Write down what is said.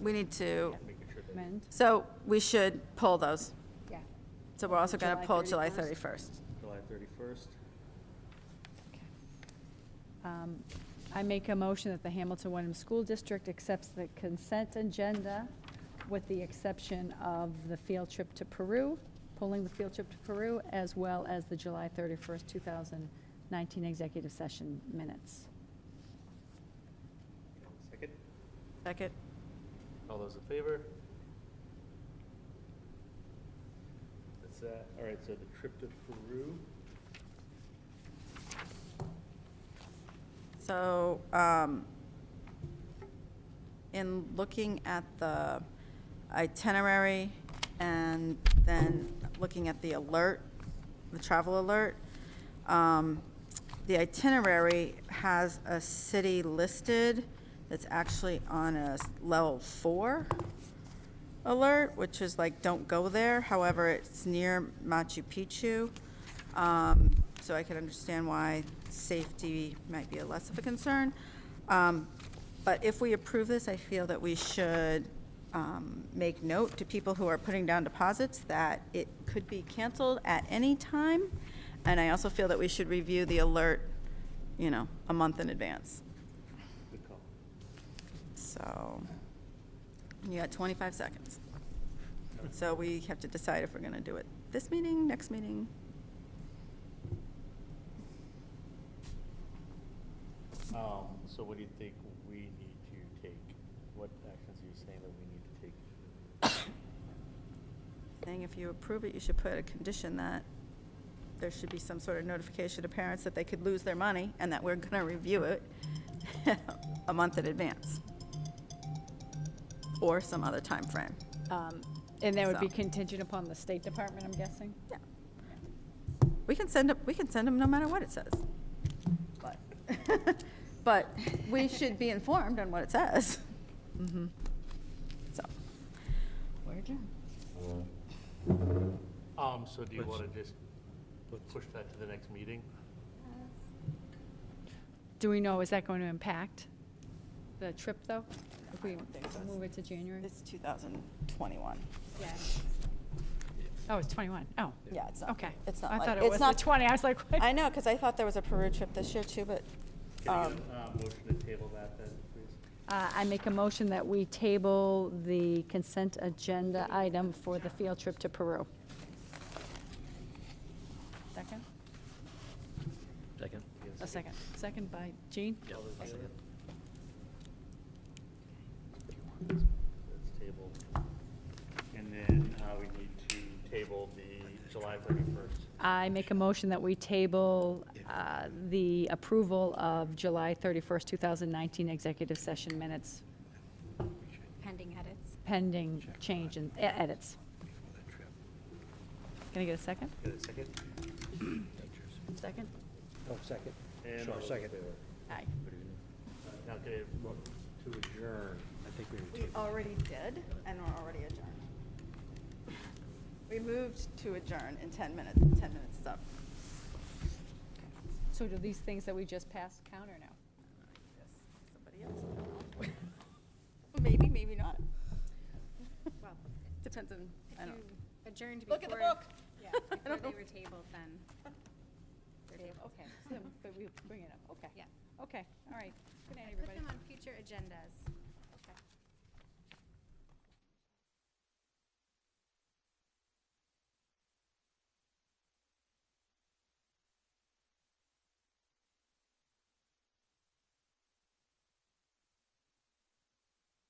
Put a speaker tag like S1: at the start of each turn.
S1: We need to,
S2: amend,
S1: so we should pull those.
S2: yeah.
S1: So we're also going to
S2: July
S1: pull July 31st.
S2: 31st.
S3: July 31st.
S2: Okay. Um, I make a motion that the Hamilton Wenham School District accepts the consent agenda with the exception of the field trip to Peru, pulling the field trip to Peru, as well as the July 31st, 2019 executive session minutes.
S3: Second.
S1: Second?
S3: All those in favor? That's that. All right, so the trip to Peru.
S1: So, um, in looking at the itinerary and then looking at the alert, the travel alert, um, the itinerary has a city listed that's actually on a s- level four alert, which is like, don't go there. However, it's near Machu Picchu. Um, so I could understand why safety might be a less of a concern. Um, but if we approve this, I feel that we should um, make note to people who are putting down deposits that it could be canceled at any time. And I also feel that we should review the alert, you know, a month in advance.
S3: Good call.
S1: So, you got 25 seconds. So we have to decide if we're going to do it this meeting, next meeting.
S3: Um, so what do you think we need to take? What actions are you saying that we need to take?
S1: Saying if you approve it, you should put a condition that there should be some sort of notification to parents that they could lose their money and that we're going to review it a month in advance. Or some other time frame.
S2: Um, And that would be
S1: So.
S2: contingent upon the State Department, I'm guessing?
S1: Yeah. We can send up, we can send them no matter what it says. But, but we should be informed on what it says.
S2: Mm-hmm.
S1: Mhm. So, we're adjourned.
S3: Um, so do you want to just push that to the next meeting?
S2: Do we know, is that going to impact the trip, though? If we
S1: think so.
S2: move it to January?
S1: It's 2021.
S2: Yeah. Oh, it's 21. Oh.
S1: Yeah, it's not.
S2: Okay.
S1: It's not
S2: I
S1: like-
S2: thought it
S1: it's
S2: was the
S1: not-
S2: 20. I was like, what?
S1: I know, because I thought there was a Peru trip this year too, but,
S3: Can I
S1: um,
S3: get a, uh, motion to table that then, please?
S2: Uh, I make a motion that we table the consent agenda item for the field trip to Peru. Second?
S4: Second.
S2: A second. Second by Jean?
S4: Yeah.
S3: All those in
S4: I'll
S3: favor?
S4: second.
S3: That's tabled. And then, uh, we need to table the July thirty-first.
S2: I make a motion that we table uh, the approval of July 31st, 2019 executive session minutes
S5: Pending edits.
S2: pending change and e- edits. Can I get a second?
S3: Get a second?
S2: Second?
S6: Oh, second.
S3: And
S6: Sure,
S3: all those in
S6: second.
S3: favor?
S2: Aye.
S3: Now, can I vote to adjourn?
S6: I think we were
S1: we already did, and we're already adjourned. We moved to adjourn in 10 minutes, 10 minutes is up.
S2: So do these things that we just passed count or no?
S1: Yes, Somebody else. Maybe, maybe not.
S5: Well,
S1: Depends on,
S5: if
S1: I don't.
S5: you adjourned before.
S1: Look at the book.
S5: Yeah,
S1: I
S5: before
S1: don't know.
S5: they were tabled, then. they're
S2: Okay,
S5: tabled.
S2: so, but we bring it up, okay.
S5: Yeah.
S2: Okay, all right. Good night,
S5: I put
S2: everybody.
S5: them on future agendas.